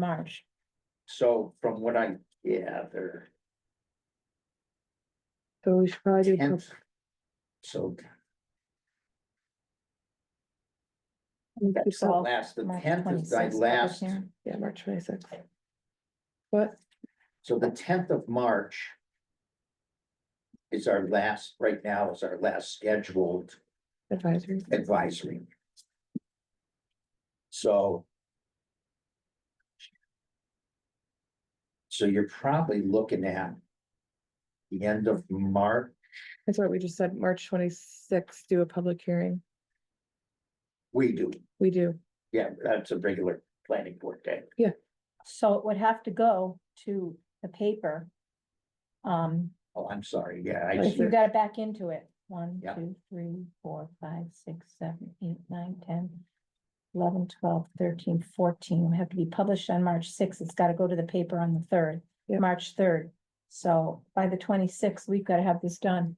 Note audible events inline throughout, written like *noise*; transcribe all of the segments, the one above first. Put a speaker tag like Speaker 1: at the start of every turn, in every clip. Speaker 1: March.
Speaker 2: So from what I gather,
Speaker 3: So we should probably do,
Speaker 2: tenth.
Speaker 3: prob-
Speaker 2: So
Speaker 3: we do
Speaker 1: That's
Speaker 2: the
Speaker 3: prob-
Speaker 1: all.
Speaker 2: last, the
Speaker 1: March
Speaker 2: tenth is thy
Speaker 1: 26th public
Speaker 2: last,
Speaker 1: hearing.
Speaker 3: yeah, March twenty-sixth. What,
Speaker 2: so the tenth of March. Is our last, right now is our last scheduled
Speaker 3: advisory?
Speaker 2: advisory. So. So you're probably looking at. The end of March,
Speaker 3: That's what we just said, March twenty-sixth, do a public hearing.
Speaker 2: we do,
Speaker 3: We do,
Speaker 2: yeah, that's a regular planning board day.
Speaker 1: So it would have to go to the paper. Um,
Speaker 2: Oh, I'm sorry, yeah, I
Speaker 1: if
Speaker 2: see,
Speaker 1: you got it back into it, one,
Speaker 2: Yeah.
Speaker 1: two, three, four, five, six, seven, eight, nine, ten. Eleven, twelve, thirteen, fourteen, It would have to be published on March sixth, it's gotta go to the paper on the third,
Speaker 3: Yeah.
Speaker 1: March third. So by the twenty-sixth, we've gotta have this done.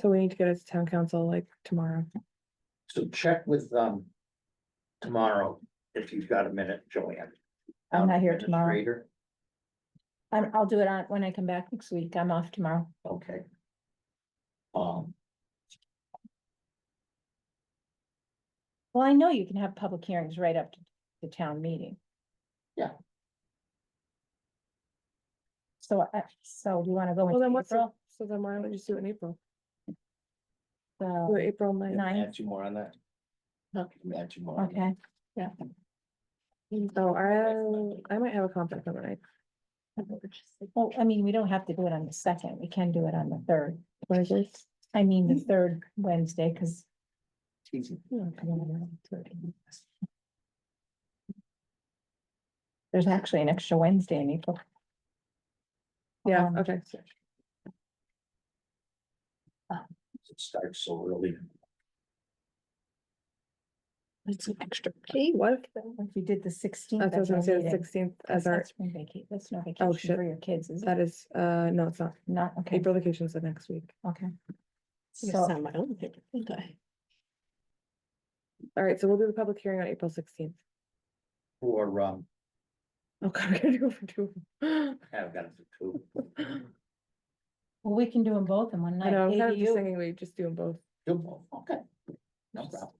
Speaker 3: so we need to get it to town council like tomorrow.
Speaker 2: so check with, um. Tomorrow, if you've got a minute, Joanne.
Speaker 1: I'm not here
Speaker 2: Town
Speaker 1: tomorrow.
Speaker 2: administrator.
Speaker 1: I'm, I'll do it on, when I come back next week, I'm off tomorrow.
Speaker 2: Okay. Um,
Speaker 1: Well, I know you can have public hearings right up to the town meeting.
Speaker 2: Yeah.
Speaker 1: So, I so do you wanna go
Speaker 3: Well, then
Speaker 1: with
Speaker 3: what's, the-
Speaker 1: April,
Speaker 3: so then why don't we just do it in April? Do it
Speaker 1: the
Speaker 3: Oh, April ninth,
Speaker 1: ninth,
Speaker 2: add two more on that. Add two more. on that.
Speaker 1: okay,
Speaker 3: so I, I might have a conflict on the ninth,
Speaker 1: well, I mean, we don't have to do it on the second, we can do it on the third,
Speaker 3: twenty-sixth.
Speaker 1: I mean,
Speaker 3: Hmm.
Speaker 1: the third Wednesday, cause.
Speaker 2: Easy.
Speaker 1: There's actually an extra Wednesday in April.
Speaker 3: Yeah,
Speaker 1: Um,
Speaker 3: okay,
Speaker 2: It starts so early.
Speaker 3: that's an extra. Hey, what?
Speaker 1: If you did the sixteenth.
Speaker 3: That's what I was gonna say, the sixteenth as our, Oh,
Speaker 1: That's spring vacation, that's no vacation
Speaker 3: shit.
Speaker 1: for your kids, is it?
Speaker 3: that is, uh, no, it's not,
Speaker 1: Not, okay,
Speaker 3: April vacation's the next week.
Speaker 1: okay.
Speaker 4: Yes,
Speaker 1: So,
Speaker 4: on my own paper, didn't I?
Speaker 3: All right, so we'll do the public hearing on April sixteenth.
Speaker 2: For, um,
Speaker 3: Oh *laughs* god, we gotta do it for two. of 'em.
Speaker 2: I've got to two.
Speaker 1: well, we can do them both in one
Speaker 3: I
Speaker 1: night,
Speaker 3: know, I'm kind of um, just
Speaker 1: ADU,
Speaker 3: thinking we just do them both.
Speaker 2: Two more, Okay. No problem.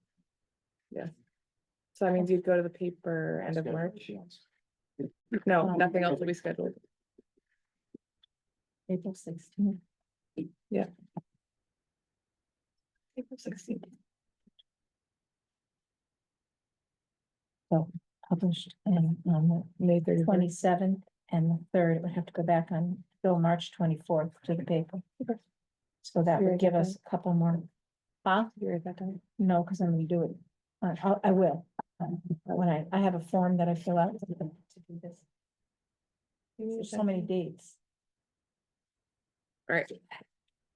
Speaker 3: So that means you'd go to the paper end of March. No,
Speaker 1: Um,
Speaker 3: nothing else will be scheduled.
Speaker 1: April sixteenth.
Speaker 3: April sixteenth.
Speaker 1: published and on
Speaker 3: May
Speaker 1: the
Speaker 3: thirty first.
Speaker 1: twenty-seventh and the third, it would have to go back on till March twenty-fourth to the paper.
Speaker 3: Okay.
Speaker 1: So that
Speaker 3: You're
Speaker 1: would give
Speaker 3: okay.
Speaker 1: us a couple more, huh?
Speaker 3: You're at that time.
Speaker 1: No, because I'm gonna do it, I, I'll- I will. um, But when I, I have a form that I fill out to do this, there's so many dates.
Speaker 3: All right,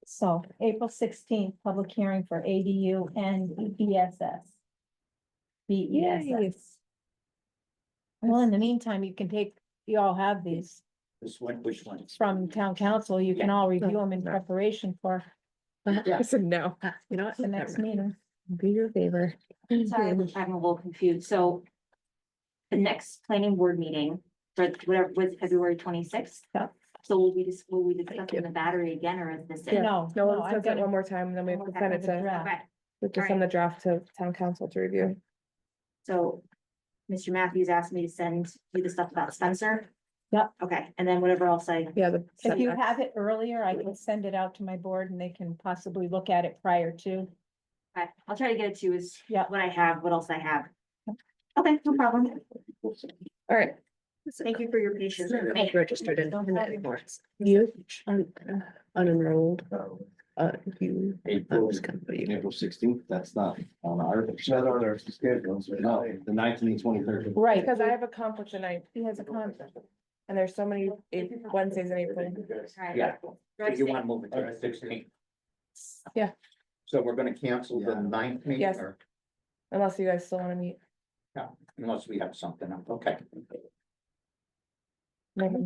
Speaker 1: So April sixteenth, public hearing for ADU and E BSS.
Speaker 3: Yay.
Speaker 1: BESS. E Well, in the meantime, you can take, you all have these
Speaker 2: This one, which one?
Speaker 1: from town council. You can all review them in
Speaker 3: Yeah.
Speaker 1: preparation for
Speaker 3: *laughs*
Speaker 2: Yeah.
Speaker 3: I said no.
Speaker 4: Ah, You know what?
Speaker 1: the next meeting.
Speaker 3: Do your
Speaker 1: *laughs*
Speaker 3: favor.
Speaker 5: Sorry, I'm I'm a little confused, so. The next planning board meeting, for whatever, was February twenty-sixth?
Speaker 1: Yeah.
Speaker 5: So will we just, will we discuss
Speaker 3: Thank you.
Speaker 5: the battery again, or is this it?
Speaker 3: Yeah.
Speaker 1: No,
Speaker 3: No,
Speaker 1: no,
Speaker 3: we'll
Speaker 1: I've
Speaker 3: discuss
Speaker 1: got
Speaker 3: it
Speaker 1: it.
Speaker 3: one more time, then we have to
Speaker 5: One more
Speaker 3: send
Speaker 5: time.
Speaker 3: it to,
Speaker 1: Draft.
Speaker 5: Okay,
Speaker 3: we have to
Speaker 5: All
Speaker 3: send the draft to town council to review.
Speaker 5: so, Mr. Matthews asked me to send you the stuff about Spencer?
Speaker 1: Yep.
Speaker 5: Okay, and then whatever else I,
Speaker 3: Yeah, the.
Speaker 1: If you
Speaker 3: setbacks.
Speaker 1: have it earlier, I can send it out to my board and they can possibly look at it prior to.
Speaker 5: I- I'll try to get it to you is
Speaker 1: Yeah.
Speaker 5: what I have, what else I have. Okay, no problem.
Speaker 3: All right.
Speaker 5: Thank you for your patience.
Speaker 4: Sure, I'm
Speaker 5: Hey,
Speaker 4: Registered in,
Speaker 1: Don't
Speaker 4: in that
Speaker 1: worry.
Speaker 4: anymore. It's
Speaker 3: You.
Speaker 4: un- Unenrolled, uh, you,
Speaker 6: April,
Speaker 4: those company.
Speaker 6: April sixteenth, that's not on our. schedules. No, the ninth and the twenty-third.
Speaker 1: Right.
Speaker 3: Because I have a conflict tonight. He has a conflict. And there's so many
Speaker 5: If
Speaker 3: Ap-
Speaker 5: you have-
Speaker 3: Wednesdays in April.
Speaker 5: Sorry.
Speaker 2: Yeah, so you
Speaker 5: Registered.
Speaker 2: want to move it to the sixteenth.
Speaker 3: Yeah.
Speaker 2: So we're gonna cancel the
Speaker 6: Yeah.
Speaker 2: ninth meeting
Speaker 3: Yes.
Speaker 2: or
Speaker 3: Unless you guys still wanna meet.
Speaker 2: unless we have something, up. okay.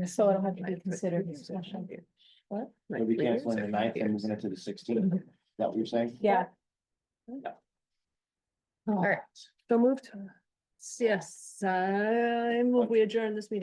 Speaker 1: So it'll have to be considered a special.
Speaker 6: We'll be canceling the ninth and moving it to the sixteenth. Is that what you're saying?
Speaker 1: Yeah,
Speaker 3: All right, so moved.
Speaker 1: Yes, I move we adjourn this meeting.